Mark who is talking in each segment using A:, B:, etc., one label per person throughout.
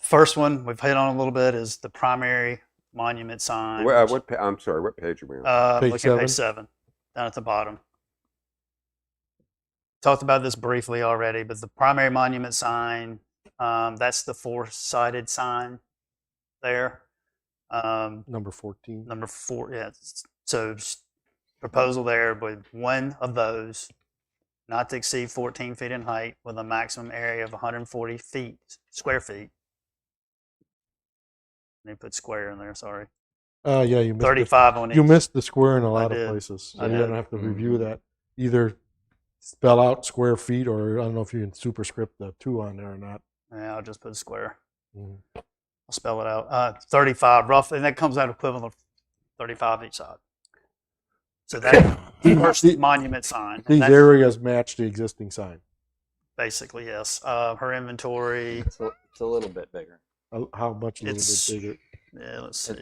A: First one we've hit on a little bit is the primary monument sign.
B: Where, uh, what, pa- I'm sorry, what page are we on?
A: Uh,
C: Page
A: look at page seven, down at the bottom. Talked about this briefly already, but the primary monument sign, um, that's the four-sided sign there. Um,
C: Number 14.
A: number four, yeah, s- so s- proposal there with one of those not to exceed fourteen feet in height with a maximum area of hundred and forty feet, square feet. They put square in there, sorry.
C: Uh, yeah, you missed, the,
A: Thirty-five on each.
C: you missed the square in a lot
A: did. Mm-hmm.
C: of places. So
A: I
C: you
A: did.
C: don't have to review that. Either spell out square feet or I don't know if you can superscript the two on there or not.
A: Yeah, I'll just put square.
C: Mhm.
A: I'll spell it out. Uh, 35 roughly, and that comes out equivalent of 35 each side. So that first
C: The-
A: monument sign.
C: These
A: that's
C: areas match the existing sign.
A: basically yes. Uh, her inventory.
D: It's a, it's a little bit bigger.
C: Uh, How much a little
A: It's-
C: bit bigger?
A: Yeah, let's see.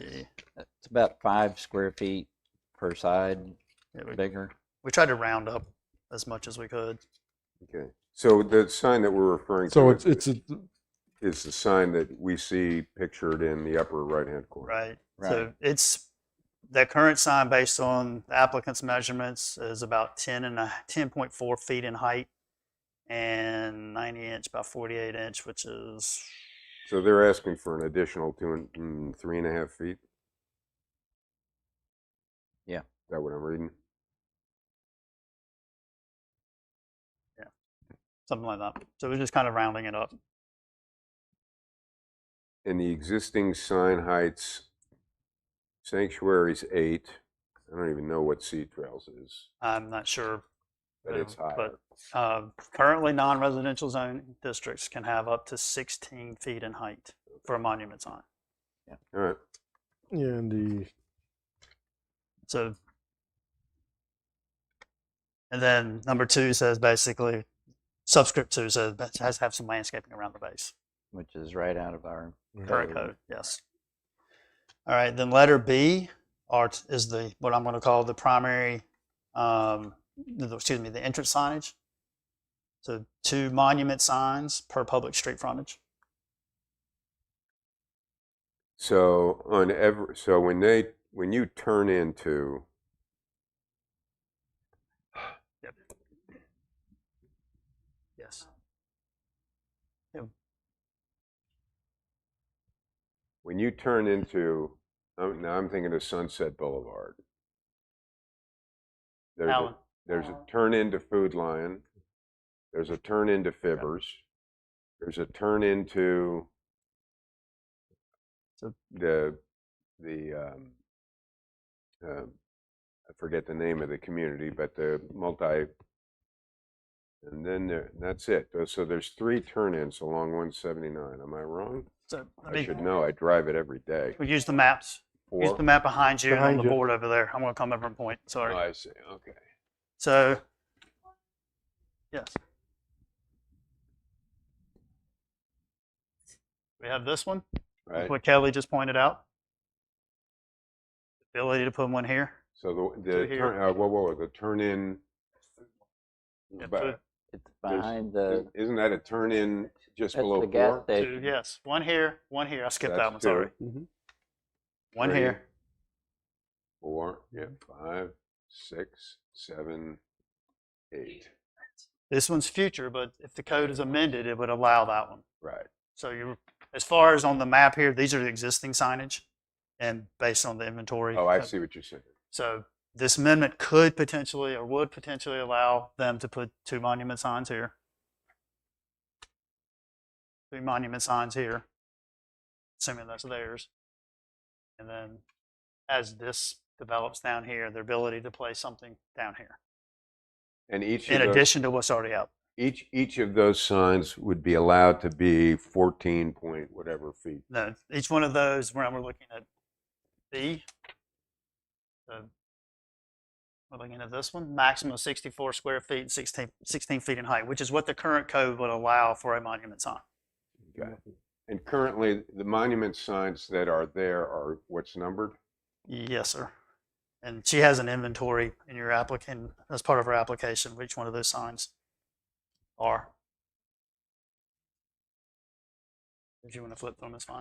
D: It's about five square feet per side
A: Yeah, we,
D: bigger.
A: we tried to round up as much as we could.
B: Okay. So the sign that we're referring to
C: So it's it's a,
B: is the sign that we see pictured in the upper right-hand corner.
A: Right.
D: Right.
A: So it's the current sign based on the applicant's measurements is about 10 and a 10.4 feet in height and 90 inch by 48 inch, which is
B: So they're asking for an additional two and mm, three and a half feet.
D: Yeah.
B: Is that what I'm reading?
A: something like that. So we're just kind of rounding it up.
B: And the existing sign heights, sanctuary's eight. I don't even know what Sea Trails is,
A: I'm not sure.
B: but it's
A: Um,
B: higher.
A: Uh, currently, non-residential zone districts can have up to 16 feet in height for a monument sign.
B: All right.
C: and the
A: So, and then number two says basically, subscript two says that has to have some landscaping around the base.
D: Which is right out of our
A: Current
D: Code.
A: code, yes. All right, then letter B are, is the, what I'm gonna call the primary, um, the- excuse me, the entrance signage. So two monument signs per public street frontage.
B: So on every, so when they, when you turn into,
A: Yes.
B: when you turn into, I'm, now I'm thinking of Sunset Boulevard. There's a-
A: Alan,
B: There's a turn into Food Lion. There's a turn into Fibbers. There's a turn into
A: So-
B: the the um, uh, I forget the name of the community, but the multi. And then there, that's it. Uh, So there's three turn-ins along 179. Am I wrong?
A: so, let
B: I
A: me,
B: should know. I drive it every day.
A: we use the maps, use
B: Four.
A: the map behind you and on
C: Behind
A: the
C: you.
A: board over there. I'm gonna come over and point, sorry.
B: I see. Okay.
A: So, yes. We have this one,
B: Right.
A: what Kelly just pointed out. Ability to put one here.
B: So the
A: So
B: the
A: here-
B: turn, uh, whoa, whoa, the turn-in.
A: Yeah,
B: but-
A: food.
D: It's
B: There's-
D: behind
B: Is-
D: the
B: Isn't that a turn in just
D: that's
B: below
D: the gas
B: four?
A: Two,
D: station. Mm-hmm.
A: yes, one here, one here. I skipped
B: That's
A: that one, sorry.
B: two,
A: One
B: three,
A: here.
B: Four, yeah, five, six, seven, eight.
A: This one's future, but if the code is amended, it would allow that one.
B: Right.
A: So you, as far as on the map here, these are the existing signage and based on the inventory.
B: Oh, I
A: uh,
B: see what you're saying.
A: So this amendment could potentially or would potentially allow them to put two monument signs here. Three monument signs here, assuming that's theirs. And then as this develops down here, their ability to place something down here,
B: And each
A: in
B: of those,
A: addition to what's already out.
B: each, each of those signs would be allowed to be fourteen point whatever feet.
A: No, each one of those, we're, we're looking at B. So We're looking at this one, maximum of 64 square feet, and 16, 16 feet in height, which is what the current code would allow for a monument sign.
B: Okay. And currently, the monument signs that are there are what's numbered?
A: Yes, sir. And she has an inventory in your applicant, as part of her application, which one of those signs are. If you want to flip through them, it's fine.